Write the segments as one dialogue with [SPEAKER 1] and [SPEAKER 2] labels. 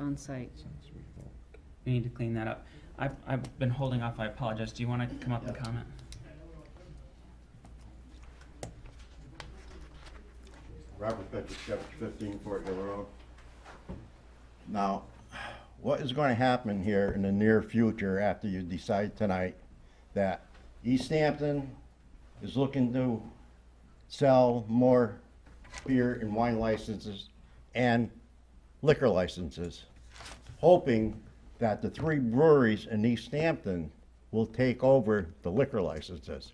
[SPEAKER 1] on site.
[SPEAKER 2] We need to clean that up. I've, I've been holding off, I apologize. Do you wanna come up and
[SPEAKER 3] Yeah.
[SPEAKER 2] comment?
[SPEAKER 4] Robert Petrochevich, fifteen Fort Hill Road.
[SPEAKER 3] Now, what is gonna happen here in the near future after you decide tonight that East Hampton is looking to sell more beer and wine licenses and liquor licenses, hoping that the three breweries in East Hampton will take over the liquor licenses?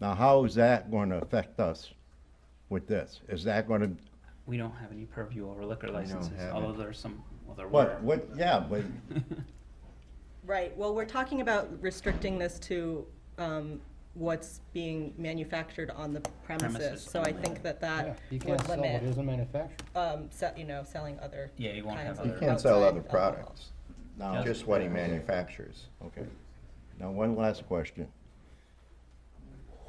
[SPEAKER 3] Now, how is that gonna affect us with this? Is that gonna
[SPEAKER 2] We don't have any purview over liquor licenses,
[SPEAKER 4] have
[SPEAKER 2] although
[SPEAKER 4] it.
[SPEAKER 2] there's some, well, there
[SPEAKER 3] What,
[SPEAKER 2] were.
[SPEAKER 3] what, yeah, but,
[SPEAKER 5] Right, well, we're talking about restricting this to um, what's being manufactured on the premises.
[SPEAKER 2] Premises
[SPEAKER 5] So I
[SPEAKER 2] only.
[SPEAKER 5] think that
[SPEAKER 6] Yeah,
[SPEAKER 5] that
[SPEAKER 6] you can't
[SPEAKER 5] would
[SPEAKER 6] sell it
[SPEAKER 5] limit,
[SPEAKER 6] as a manufacturer.
[SPEAKER 5] um, se- you know, selling other
[SPEAKER 2] Yeah, you won't
[SPEAKER 5] kinds
[SPEAKER 2] have
[SPEAKER 5] of.
[SPEAKER 2] other.
[SPEAKER 7] He can't sell other
[SPEAKER 5] outside alcohol.
[SPEAKER 7] products,
[SPEAKER 3] now,
[SPEAKER 7] just what he manufactures.
[SPEAKER 3] okay. Now, one last question.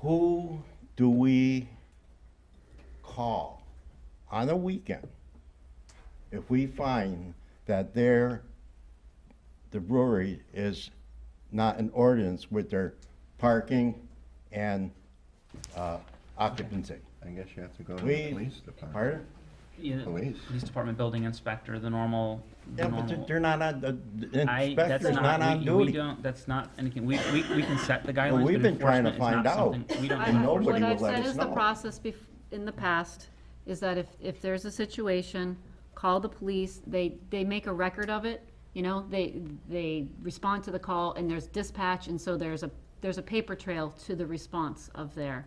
[SPEAKER 3] Who do we call on a weekend if we find that their, the brewery is not in ordinance with their parking and uh, occupancy?
[SPEAKER 7] I guess you have to go to the
[SPEAKER 3] We,
[SPEAKER 7] police department.
[SPEAKER 3] pardon?
[SPEAKER 2] Yeah,
[SPEAKER 7] Police.
[SPEAKER 2] Police department, building inspector, the normal, the
[SPEAKER 3] Oh, Yeah, but they're-
[SPEAKER 2] normal.
[SPEAKER 3] they're not on, the- the
[SPEAKER 2] I, that's
[SPEAKER 3] inspector's not on
[SPEAKER 2] not, we,
[SPEAKER 3] duty.
[SPEAKER 2] we don't, that's not anything, we, we, we can set the guidelines, but
[SPEAKER 3] we've been trying to
[SPEAKER 2] enforcement is not
[SPEAKER 3] find out.
[SPEAKER 2] something, we don't.
[SPEAKER 1] I-
[SPEAKER 3] And
[SPEAKER 1] I-
[SPEAKER 3] nobody
[SPEAKER 1] What
[SPEAKER 3] would
[SPEAKER 1] I've
[SPEAKER 3] let
[SPEAKER 1] said
[SPEAKER 3] us
[SPEAKER 1] is the
[SPEAKER 3] know.
[SPEAKER 1] process bef, in the past, is that if, if there's a situation, call the police, they, they make a record of it, you know, they, they respond to the call, and there's dispatch, and so there's a, there's a paper trail to the response of there.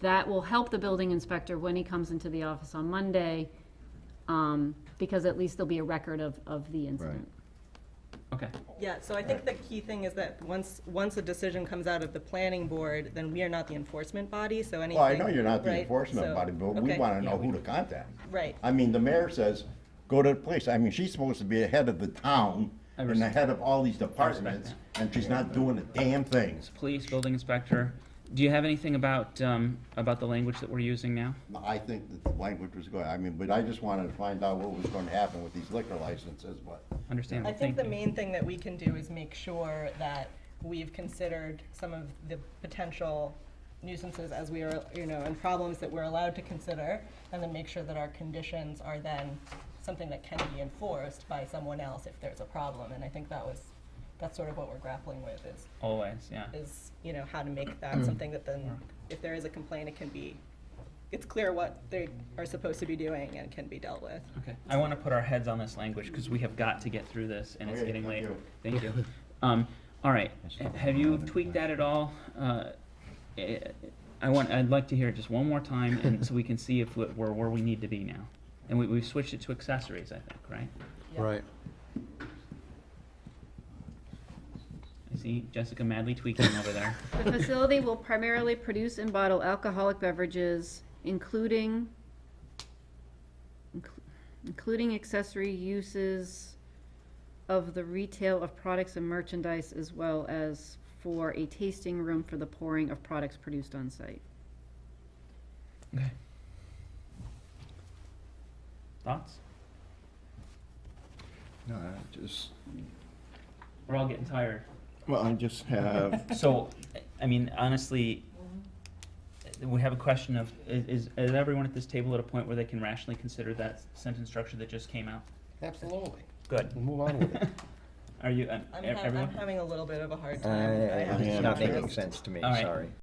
[SPEAKER 1] That will help the building inspector when he comes into the office on Monday, um, because at least there'll be a record of, of the incident.
[SPEAKER 2] Okay,
[SPEAKER 5] Yeah, so I think the key thing is that once, once a decision comes out of the planning board, then we are not the enforcement body, so anything.
[SPEAKER 3] Well, I know you're not the
[SPEAKER 5] right,
[SPEAKER 3] enforcement
[SPEAKER 5] so-
[SPEAKER 3] body, but we
[SPEAKER 5] okay,
[SPEAKER 3] wanna know who to contact.
[SPEAKER 5] Right.
[SPEAKER 3] I mean, the mayor says, go to the police, I mean, she's supposed to be the head of the town
[SPEAKER 2] I
[SPEAKER 3] and the
[SPEAKER 2] respect-
[SPEAKER 3] head of all these departments, and she's not doing a damn thing.
[SPEAKER 2] police, building inspector, do you have anything about, um, about the language that we're using now?
[SPEAKER 3] I think that the language was good, I mean, but I just wanted to find out what was gonna happen with these liquor licenses, but
[SPEAKER 2] Understandable,
[SPEAKER 5] I
[SPEAKER 2] thank
[SPEAKER 5] think
[SPEAKER 2] you.
[SPEAKER 5] the main thing that we can do is make sure that we've considered some of the potential nuisances as we are, you know, and problems that we're allowed to consider, and then make sure that our conditions are then something that can be enforced by someone else if there's a problem. And I think that was, that's sort of what we're grappling with is,
[SPEAKER 2] Always, yeah.
[SPEAKER 5] is, you know, how to make
[SPEAKER 2] Mm-hmm.
[SPEAKER 5] that something that then, if there is a complaint, it can be, it's clear what they are supposed to be doing and can be dealt with.
[SPEAKER 2] Okay, I want to put our heads on this language because we have got to get through this and it's
[SPEAKER 3] Okay,
[SPEAKER 2] getting
[SPEAKER 3] thank
[SPEAKER 2] late.
[SPEAKER 3] you.
[SPEAKER 2] Thank you. Um, all right, h- have you tweaked that at all? Uh, eh, I want, I'd like to hear it just one more time and so we can see if we're we're where we need to be now. And we, we've switched it to accessories, I think, right?
[SPEAKER 6] Right.
[SPEAKER 2] I see Jessica madly tweaking over there.
[SPEAKER 1] The facility will primarily produce and bottle alcoholic beverages, including, inclu- including accessory uses of the retail of products and merchandise, as well as for a tasting room for the pouring of products produced on site.
[SPEAKER 2] Okay. Thoughts?
[SPEAKER 7] No, I just,
[SPEAKER 2] We're all getting tired.
[SPEAKER 7] well, I just have,
[SPEAKER 2] So, I mean, honestly, we have a question of, i- is, is everyone at this table at a point where they can rationally consider that sentence structure that just came out?
[SPEAKER 6] Absolutely.
[SPEAKER 2] Good.
[SPEAKER 6] We'll move on with it.
[SPEAKER 2] Are you, um, e-
[SPEAKER 5] I'm, ha- I'm
[SPEAKER 2] everyone?
[SPEAKER 5] having a little bit of a hard
[SPEAKER 7] I-
[SPEAKER 5] time.
[SPEAKER 7] I-
[SPEAKER 5] have to
[SPEAKER 7] yeah,
[SPEAKER 5] be
[SPEAKER 7] not
[SPEAKER 5] honest.
[SPEAKER 7] making
[SPEAKER 8] sense to me,
[SPEAKER 2] All right.
[SPEAKER 8] sorry.